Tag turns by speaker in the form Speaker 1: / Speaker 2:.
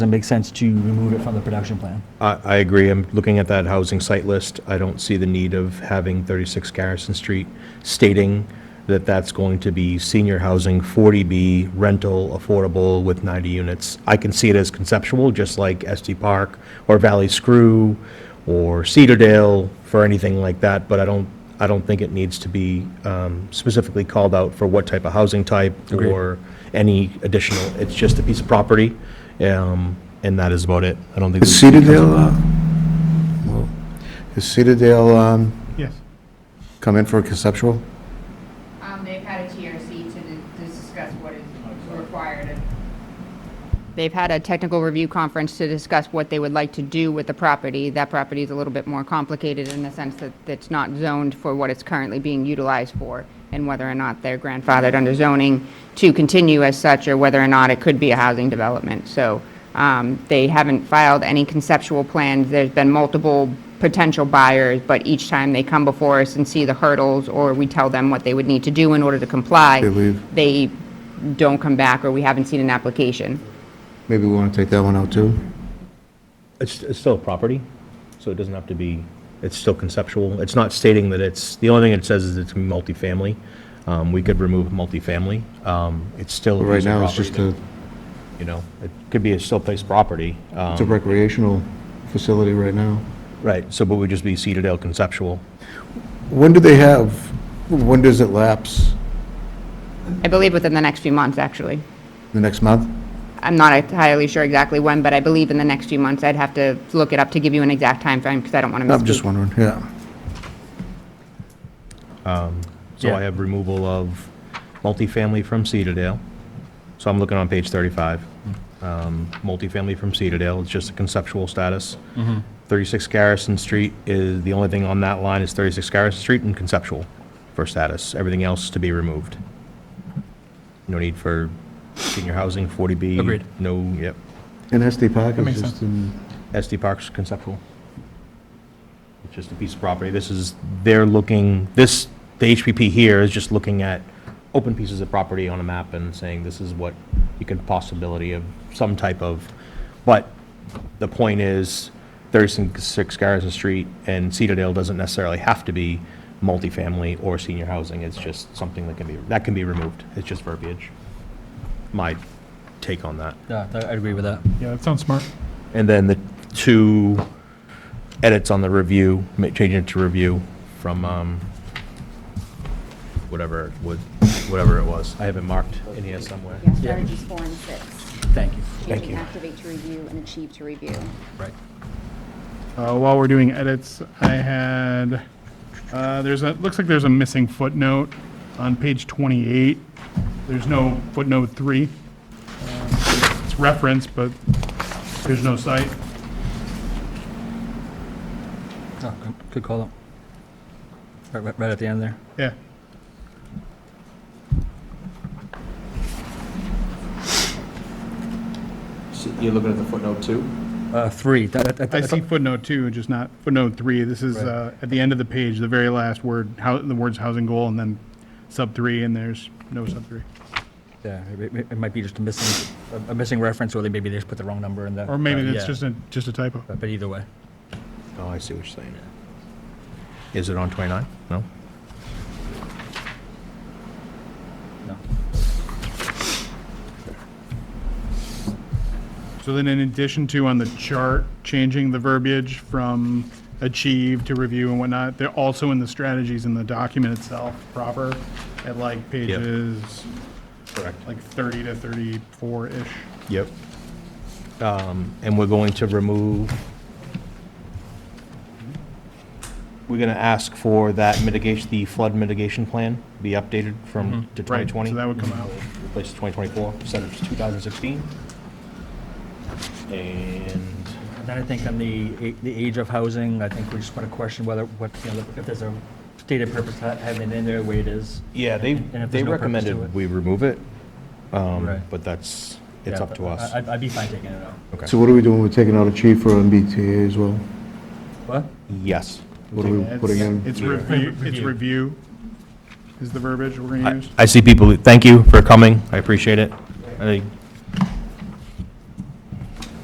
Speaker 1: Does it make sense to remove it from the production plan?
Speaker 2: I, I agree. I'm looking at that housing site list. I don't see the need of having 36 Garrison Street stating that that's going to be senior housing, 40B, rental, affordable with 90 units. I can see it as conceptual, just like SD Park or Valley Screw or Cedardale for anything like that, but I don't, I don't think it needs to be um, specifically called out for what type of housing type or any additional. It's just a piece of property, um, and that is about it. I don't think.
Speaker 3: Is
Speaker 2: there's-
Speaker 3: Cedardale, uh, well, is Cedardale, um,
Speaker 4: Yes.
Speaker 3: come in for a conceptual?
Speaker 5: Um, they've had a TRC to di- discuss what is required of They've had a technical review conference to discuss what they would like to do with the property. That property is a little bit more complicated in the sense that it's not zoned for what it's currently being utilized for, and whether or not they're grandfathered under zoning to continue as such, or whether or not it could be a housing development. So um, they haven't filed any conceptual plans. There's been multiple potential buyers, but each time they come before us and see the hurdles, or we tell them what they would need to do in order to comply,
Speaker 3: They leave.
Speaker 5: they don't come back, or we haven't seen an application.
Speaker 3: Maybe we want to take that one out too?
Speaker 2: It's, it's still a property, so it doesn't have to be, it's still conceptual. It's not stating that it's, the only thing it says is it's multifamily. Um, we could remove multifamily. Um, it's still.
Speaker 3: But
Speaker 2: a
Speaker 3: right
Speaker 2: piece of
Speaker 3: now, it's just
Speaker 2: property
Speaker 3: a,
Speaker 2: that, You know, it could be a still place property. Um,
Speaker 3: it's a recreational facility right now.
Speaker 2: right, so, but would just be Cedardale conceptual.
Speaker 3: When do they have, when does it lapse?
Speaker 5: I believe within the next few months, actually.
Speaker 3: The next month?
Speaker 5: I'm not entirely sure exactly when, but I believe in the next few months. I'd have to look it up to give you an exact timeframe, because I don't want to misspeak.
Speaker 3: I'm just wondering, yeah.
Speaker 2: So I
Speaker 4: Yeah.
Speaker 2: have removal of multifamily from Cedardale. So I'm looking on page 35. Um, Multifamily from Cedardale, it's just a conceptual status.
Speaker 4: Mm-hmm.
Speaker 2: 36 Garrison Street is, the only thing on that line is 36 Garrison Street and conceptual for status. Everything else to be removed. No need for senior housing, 40B.
Speaker 4: Agreed.
Speaker 2: No, yep.
Speaker 3: And SD Park
Speaker 4: That makes
Speaker 3: is just
Speaker 4: sense.
Speaker 3: in,
Speaker 2: SD Park's conceptual. It's just a piece of property. This is, they're looking, this, the HPP here is just looking at open pieces of property on a map and saying this is what you could possibility of some type of, but the point is, 36 Garrison Street and Cedardale doesn't necessarily have to be multifamily or senior housing. It's just something that can be, that can be removed. It's just verbiage. My take on that.
Speaker 1: Yeah, I agree with that.
Speaker 4: Yeah, that sounds smart.
Speaker 2: And then the two edits on the review, ma- changing it to review from, um, whatever, it would, whatever it was. I have it marked in here somewhere.
Speaker 6: Yeah, strategies four and six.
Speaker 1: Thank you.
Speaker 2: Thank
Speaker 6: Achieving,
Speaker 2: you.
Speaker 6: activate to review, and achieve to review.
Speaker 1: Right.
Speaker 4: Uh, While we're doing edits, I had, uh, there's a, looks like there's a missing footnote on page 28. There's no footnote three. Uh, It's referenced, but there's no site.
Speaker 1: Oh, good- Good call out. Right- Right right at the end there.
Speaker 4: Yeah.
Speaker 7: You're looking at the footnote two?
Speaker 1: Uh, Three. that- that- that-
Speaker 4: I see footnote two, just not footnote three. This is
Speaker 1: Right.
Speaker 4: uh, at the end of the page, the very last word, how, the words housing goal, and then sub three, and there's no sub three.
Speaker 1: Yeah, it- it it might be just a missing, a- a missing reference, or they maybe they just put the wrong number in there.
Speaker 4: Or maybe it's just a, just a typo.
Speaker 1: But but either way.
Speaker 2: Oh, I see what you're saying. Is it on 29? No?
Speaker 1: No.
Speaker 4: So then in addition to on the chart, changing the verbiage from achieve to review and whatnot, they're also in the strategies in the document itself proper at like pages,
Speaker 2: Correct.
Speaker 4: like 30 to 34-ish.
Speaker 2: Yep. Um, And we're going to remove, we're going to ask for that mitigation, the flood mitigation plan be updated from,
Speaker 1: Mm-hmm.
Speaker 2: to
Speaker 4: Right,
Speaker 2: 2020.
Speaker 4: So that would come out.
Speaker 2: replace 2024 instead of 2016. And
Speaker 1: And Then I think on the, a- the age of housing, I think we just want to question whether, what, you know, if there's a stated purpose to ha- having it in there, the way it is.
Speaker 2: yeah, they
Speaker 1: And- and if
Speaker 2: they
Speaker 1: there's no purpose to
Speaker 2: recommended
Speaker 1: it.
Speaker 2: we remove it, um,
Speaker 1: Right.
Speaker 2: but that's it's
Speaker 1: Yeah,
Speaker 2: up to
Speaker 1: but
Speaker 2: us.
Speaker 1: I- I'd, I'd be fine taking it out.
Speaker 2: okay.
Speaker 3: so what are we doing? We're taking out achieve for MBTA as well?
Speaker 1: What?
Speaker 2: yes,
Speaker 3: What are we putting in?
Speaker 4: It's review, it's
Speaker 1: Review.
Speaker 4: review is the verbiage we're going to use.
Speaker 2: I see people. Thank you for coming. I appreciate it. I think